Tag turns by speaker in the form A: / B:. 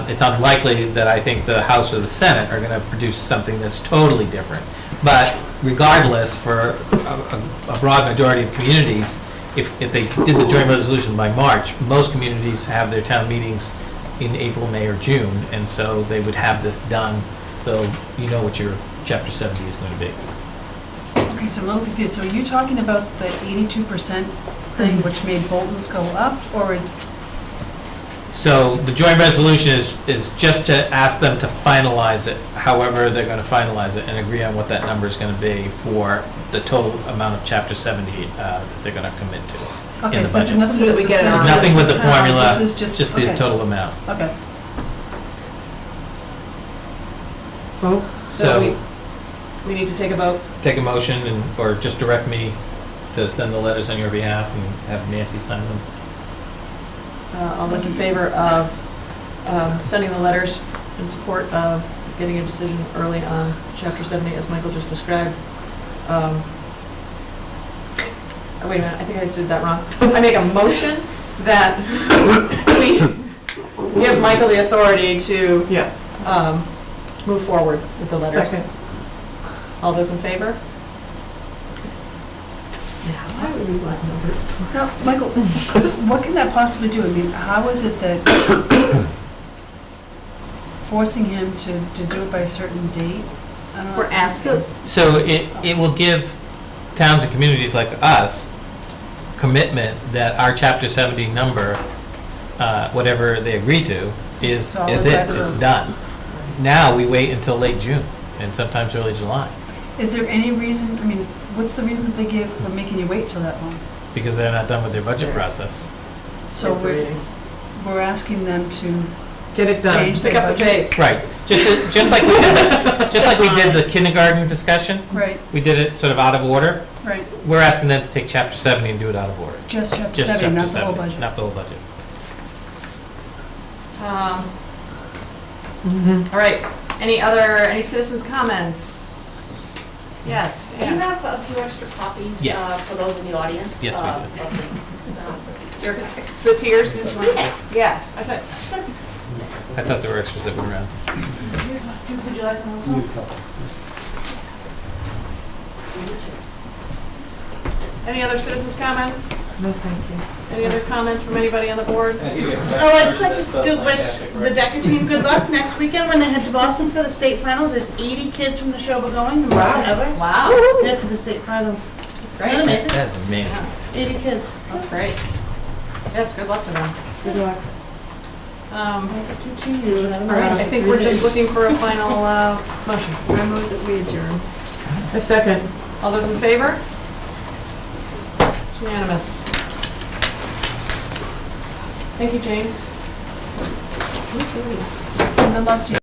A: it's unlikely that I think the House or the Senate are going to produce something that's totally different. But regardless, for a, a- a broad majority of communities, if, if they did the joint resolution by March, most communities have their town meetings in April, May, or June, and so they would have this done, so you know what your chapter seventy is going to be.
B: Okay, so I'm a little confused. So are you talking about the eighty-two percent thing which made Bolton's go up, or
A: So the joint resolution is, is just to ask them to finalize it, however they're gonna finalize it, and agree on what that number is gonna be for the total amount of chapter seventy, uh, that they're gonna commit to.
B: Okay,
A: the
B: so this is
A: budget.
B: nothing to
C: So we
B: do with the
C: get it
B: Senate,
C: on.
B: just
A: Nothing with the
B: town.
A: formula,
B: This is just,
A: just the
B: okay,
A: total amount.
B: Okay,
A: So-
C: we- We need to take a vote.
A: Take a motion and, or just direct me to send the letters on your behalf and have Nancy sign them.
C: Uh, All those in favor of um, sending the letters in support of getting a decision early on Chapter 70, as Michael just described. Um, oh, Wait a minute, I think I said that wrong. I make a motion that we give Michael the authority to
D: Yeah.
C: um, move forward with the letters.
D: Second.
C: All those in favor? Now, why would we want numbers?
B: now, Michael, what can that possibly do? I mean, how is it that forcing him to, to do it by a certain date? I don't know.
C: We're asking.
A: So it, it will give towns and communities like us commitment that our chapter seventy number, uh, whatever they agree to, is,
B: Solid
A: is it,
B: record.
A: it's done. Now, we wait until late June and sometimes early July,
B: Is there any reason, I mean, what's the reason that they give for making you wait till that long?
A: because they're not done with their budget process.
B: So we're, we're asking them to
D: Get it done.
B: change
C: Pick
B: their
C: up the
B: budget.
C: pace.
A: Right, just, just like we did, the- just like we did the kindergarten discussion,
B: Right,
A: we did it sort of out of order.
B: right,
A: We're asking them to take chapter seventy and do it out of order.
B: just chapter
A: Just chapter
B: seven, not the whole
A: 70,
B: budget.
A: Not the whole budget.
C: Um,
D: Mhm.
C: All right, any other, any citizens' comments? Yes,
E: Do you
C: Anne.
E: have a few extra copies? uh,
A: Yes.
E: For those in the audience?
A: Yes, we
E: Uh,
A: do.
E: okay.
C: Your- the tears? Yes, I thought,
F: Uh,
A: I thought there were extras that were around.
E: Uh, Would you like more?
C: any other citizens' comments?
D: No, thank you.
C: Any other comments from anybody on the board?
F: Oh, I'd just like to still wish the Decker team good luck next weekend when they head to Boston for the state finals. There's 80 kids from the show are going, the most ever.
C: Wow,
F: They're to the state finals.
C: that's
F: Isn't that
C: great,
F: amazing?
A: That's amazing.
F: 80 kids.
C: that's great. Yes, good luck to them.
F: Good luck.
C: Um,
F: All
C: All right, I think we're just looking for a final uh, motion.
G: I move that we adjourn.
D: A second.
C: All those in favor? It's Unanimous. Thank you, James.
B: Good luck to you.